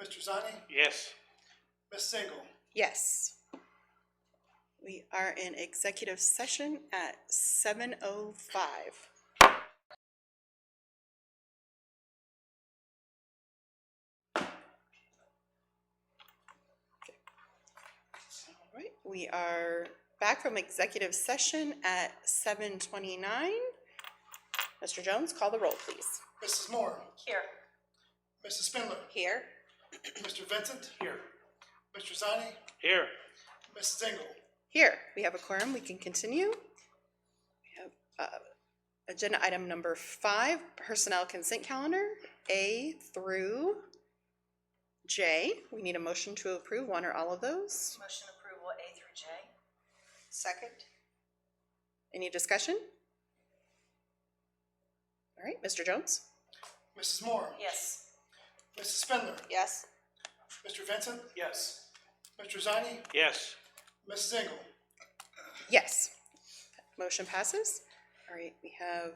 Mr. Zani, Yes. Ms. Single. Yes. We are in executive session at seven oh five. All right, we are back from executive session at seven twenty-nine. Mr. Jones, call the roll, please. Mrs. Moore, Here. Mrs. Spindler, Here. Mr. Vincent, Here. Mr. Zani, Here. Ms. Single. Here, we have a quorum, we can continue. We have, uh, Agenda item number five, personnel consent calendar, A through J. We need a motion to approve one or all of those. Motion approval A through J. Second. Any discussion? All right, Mr. Jones? Mrs. Moore, Yes. Mrs. Spindler, Yes. Mr. Vincent, Yes. Mr. Zani, Yes. Ms. Single. Yes. Motion passes. All right, we have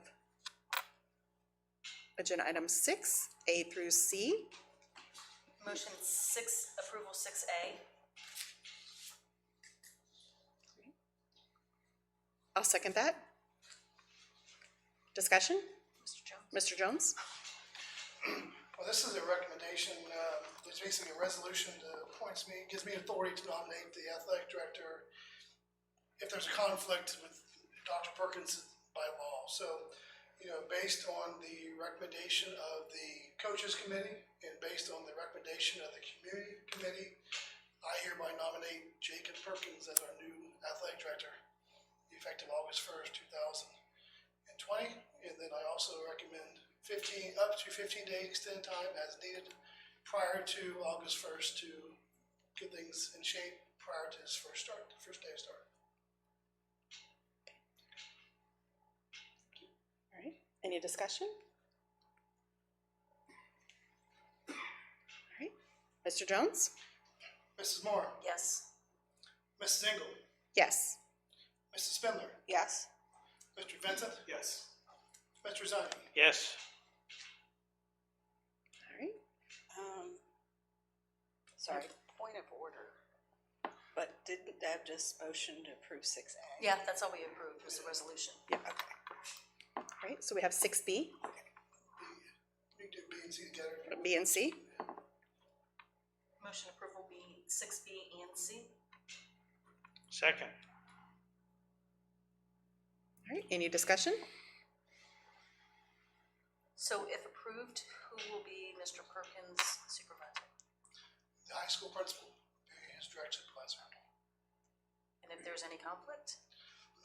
agenda item six, A through C. Motion six, approval six A. I'll second that. Discussion? Mr. Jones? Mr. Jones? Well, this is a recommendation, uh, it's basically a resolution that appoints me, gives me authority to nominate the athletic director if there's a conflict with Dr. Perkins by law. So, you know, based on the recommendation of the coaches committee and based on the recommendation of the community committee, I hereby nominate Jacob Perkins as our new athletic director, effective August first, two thousand and twenty, and then I also recommend fifteen, up to fifteen day extend time as needed prior to August first to get things in shape prior to his first start, first day of start. All right, any discussion? All right, Mr. Jones? Mrs. Moore, Yes. Mrs. Engel, Yes. Mrs. Spindler, Yes. Mr. Vincent, Yes. Mr. Zani. Yes. All right, Um, sorry, point of order. But didn't Deb just motion to approve six A? Yeah, that's all we approved, was the resolution. Yeah, okay. all right, so we have six B, You can do B and C together. B and C. Motion approval B, six B and C. Second. All right, any discussion? So if approved, who will be Mr. Perkins supervisor? The high school principal, his direct supervisor. And if there's any conflict?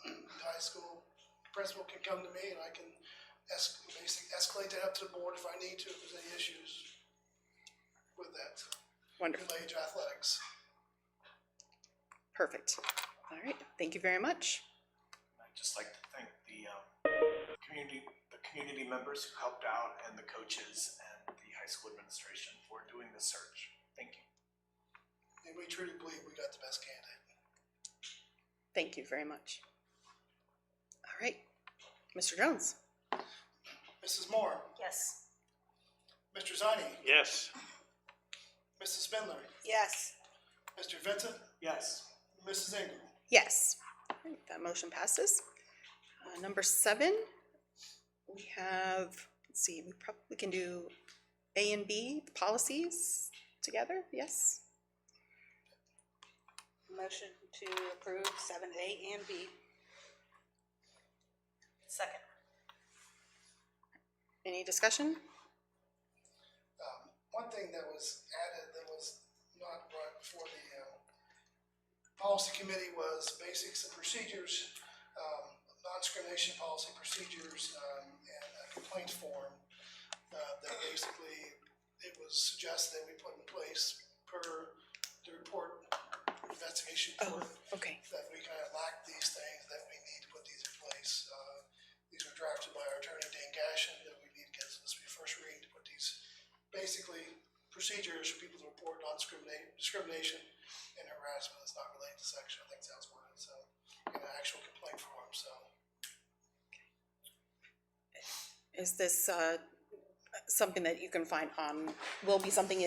The high school principal can come to me and I can es- basically escalate that up to the board if I need to, if there's any issues with that. Wonderful, Middle age athletics. perfect. All right, thank you very much. I'd just like to thank the um, community, the community members who helped out, and the coaches and the high school administration for doing the search. Thank you. And we truly believe we got the best candidate. Thank you very much. All right, Mr. Jones? Mrs. Moore, Yes. Mr. Zani, Yes. Mrs. Spindler, Yes. Mr. Vincent, Yes. Mrs. Engel. Yes. All right, That motion passes. Uh, Number seven, we have, let's see, we probably, we can do A and B, the policies together, yes? Motion to approve seven A and B. Second. Any discussion? Um, one thing that was added that was not brought before the, uh, policy committee was basics and procedures, um, non-discrimination policy procedures, um, and a complaint form. Uh, that basically, it was suggested that we put in place per the report, investigation report. Okay, that we kind of lack these things, that we need to put these in place. Uh, These were drafted by our attorney, Dan Gashin, that we need to get this to be first reading to put these, basically, procedures for people to report on discriminate, discrimination and harassment that's not related to sex, I think that's worded, so, in an actual complaint form, so. is this uh, something that you can find on, will be something